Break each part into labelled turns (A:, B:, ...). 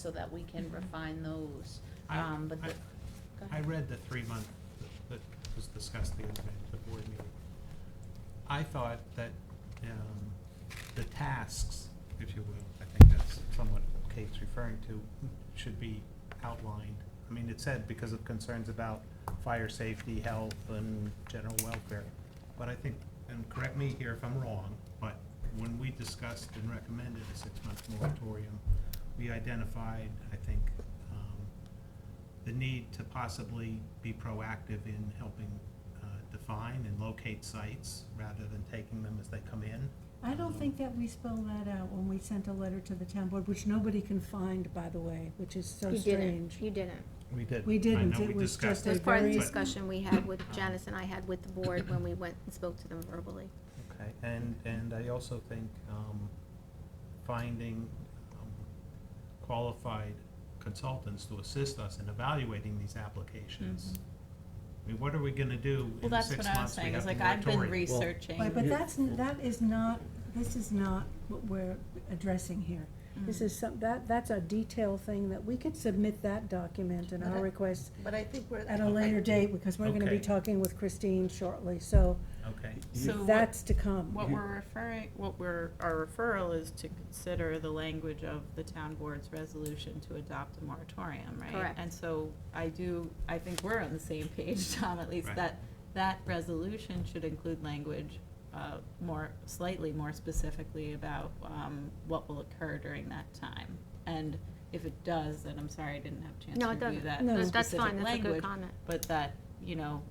A: so that we can refine those.
B: Mm-hmm. I-
A: Um, but the, go
B: I
A: ahead.
B: read the three-month that that was discussed the other day at the board meeting. I thought that um, the tasks, if you will, I think that's somewhat what Kate's referring to, should be outlined. I mean, it said because of concerns about fire safety, health, and general welfare. But I think, and correct me here if I'm wrong, but when we discussed and recommended a six-month moratorium, we identified, I think, um, the need to possibly be proactive in helping uh, define and locate sites rather than taking them as they come in.
C: I don't think that we spelled that out when we sent a letter to the town board, which nobody can find, by the way, which is so
D: You
C: strange.
D: didn't, you didn't.
B: We did.
C: We didn't.
B: I know
C: It
B: we
C: was
B: discussed
C: just a
D: That was
B: it.
D: part of the
C: very-
D: discussion we had with Janice and I had with the board when we went and spoke to them verbally.
B: Okay, and, and I also think um, finding um, qualified consultants to assist us in evaluating these applications.
C: Mm-hmm.
B: I mean, what are we gonna do
E: Well,
B: in the
E: that's
B: six
E: what I was
B: months we
E: saying,
B: have
E: is
B: the
E: like, I've been
B: moratorium?
E: researching.
C: Right, but that's, n- that is not, this is not what we're addressing here. This is some, that, that's a detail thing that we could submit that document and
F: But
C: our
F: I-
C: request
B: Mm.
F: But I think we're.
C: at a later date, because we're gonna be
B: Okay.
C: talking with Christine shortly, so
B: Okay,
E: So what-
C: that's to come.
E: What we're referring, what we're, our referral is to consider the language of the town board's resolution to adopt a moratorium, right?
D: Correct.
E: And so I do, I think we're on the same page, Tom, at least,
B: Right.
E: that, that resolution should include language uh, more, slightly more specifically about um, what will occur during that time. And if it does, then I'm sorry I didn't have a chance
D: No,
E: to
D: it
E: review
D: doesn't.
E: that
C: No.
D: That-
E: specific language.
D: That's fine, that's a good comment.
E: But that, you know,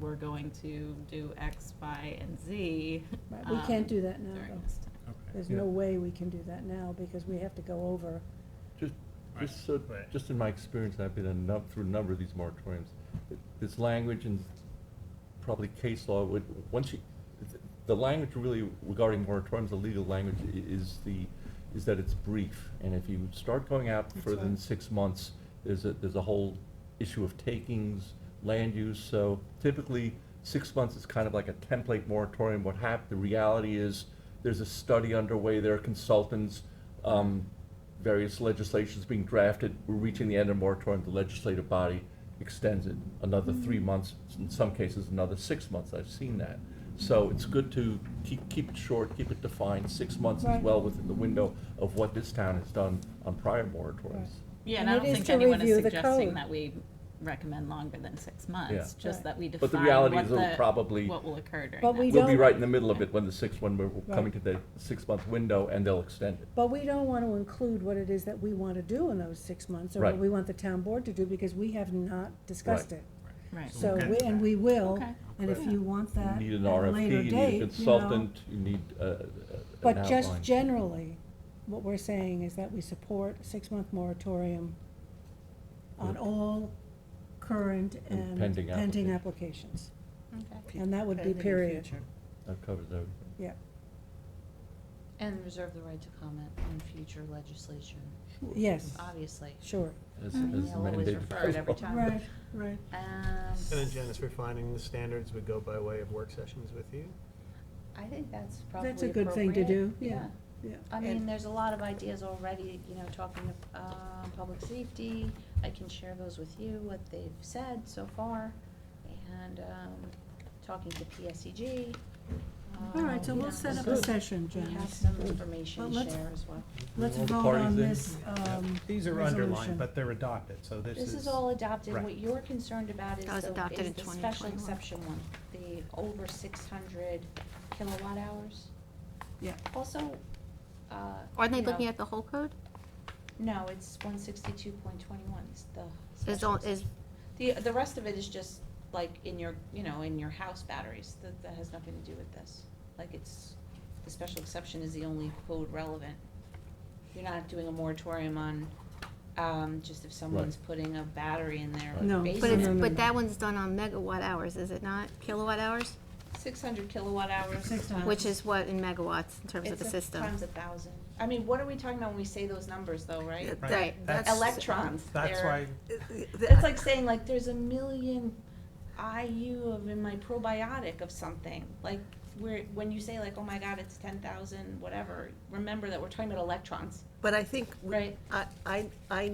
E: we're going to do X, Y, and Z.
C: Right, we
E: um,
C: can't do that now,
E: During
C: though.
E: this time.
B: okay.
C: There's no way we can do that now, because we have to go over,
G: Just,
B: Right.
G: just so,
B: Right.
G: just in my experience, and I've been in a num- through a number of these moratoriums, th- this language and probably case law would, once you, th- the language really regarding moratoriums, the legal language i- is the, is that it's brief. And if you start going out
C: That's
G: further than
C: right.
G: six months, there's a, there's a whole issue of takings, land use. So typically, six months is kind of like a template moratorium. What hap, the reality is, there's a study underway, there are consultants, um, various legislations being drafted. We're reaching the end of moratorium, the legislative body extends it another three months, in some cases, another six months. I've seen that. So it's good to keep, keep it short, keep it defined. Six months is
C: Right.
G: well within the window of what this town has done on prior moratoriums.
E: Yeah,
C: And
E: and I
C: it
E: don't
C: is
E: think
C: to
E: anyone is
C: review the
E: suggesting
C: code.
E: that we recommend longer than six months,
G: Yeah.
E: just
C: Right.
E: that we
G: But the
E: define
G: reality
E: what
G: is it'll
E: the,
G: probably,
E: what will occur during that.
C: But we
G: we'll be
C: don't-
G: right in the middle of it when the sixth one, we're we're coming to
C: Right.
G: the six-month window and they'll extend it.
C: but we don't wanna include what it is that we wanna do in those six months, or what
G: Right.
C: we want the town board to do, because we have not discussed
G: Right.
C: it.
E: Right.
B: So
C: So,
B: we'll
C: we-
B: get
C: and
B: that.
C: we will,
E: Okay.
C: and if
G: Right.
C: you want that at
G: You need an
C: a later
G: RFP, you need
C: date, you
G: a
C: know.
G: consultant, you need uh, uh, an
C: But just
G: outline.
C: generally, what we're saying is that we support a six-month moratorium on
G: Yeah.
C: all current
G: And
C: and
G: pending
C: pending
G: application.
C: applications.
E: Okay.
C: And that would be period.
G: That covers everything.
C: Yeah,
A: And reserve the right to comment on future legislation,
C: yes,
A: Uh, obviously.
C: sure.
G: As-
A: I mean,
G: as
A: They'll Mm-hmm. always
G: mandated
A: refer it every
G: by law.
A: time.
C: Right, right.
A: Um,
H: And then Janice, refining the standards would go by way of work sessions with you?
A: I think that's probably
C: That's a good thing to
A: appropriate.
C: do, yeah, yeah.
A: I
F: And-
A: mean, there's a lot of ideas already, you know, talking of, um, public safety, I can share those with you, what they've said so far, and, um, talking to PSEG.
C: All right, so
A: um, you know,
C: we'll set up a
G: Good.
C: session,
A: We have
C: Janice.
A: some information
C: Well,
A: to
C: let's-
A: share as well.
C: Let's
G: All the
C: vote on
G: parties in?
C: this, um,
B: These are underlined,
C: resolution.
B: but they're adopted, so this is.
A: This is all adopted,
B: Right.
A: what you're concerned about is
D: That was
A: the,
D: adopted
A: is
D: in
A: the special
D: 2021.
A: exception one, the over six hundred kilowatt hours.
C: Yeah.
A: Also, uh.
D: Aren't they
A: you know,
D: looking at the whole code?
A: No, it's one sixty-two point twenty-one, it's the
D: Is,
A: special
D: all-
A: exception.
D: is,
A: The, the rest of it is just like in your, you know, in your house batteries, that, that has nothing to do with this. Like it's, the special exception is the only code relevant. You're not doing a moratorium on, um, just if someone's putting a battery in their
G: Right.
C: No,
D: but
C: No,
D: it's,
C: no,
A: basement.
C: no, no.
D: but that one's done on megawatt hours, is it not? Kilowatt hours?
A: Six hundred kilowatt hours.
C: Six
E: Uh,
C: times.
D: Which is what in megawatts in terms of
A: It's
D: the
A: a-
D: system?
A: Times a thousand. I mean, what are we talking about when we say those numbers though, right?
B: Right.
D: Right,
B: That's-
D: that's-
A: Electrons,
B: That's
A: they're-
B: why,
A: It's like saying like there's a million IU of in my probiotic of something. Like where when you say like, oh my god, it's ten thousand, whatever. Remember that we're talking about electrons,
F: But I think, we-
A: right?
F: I, I, I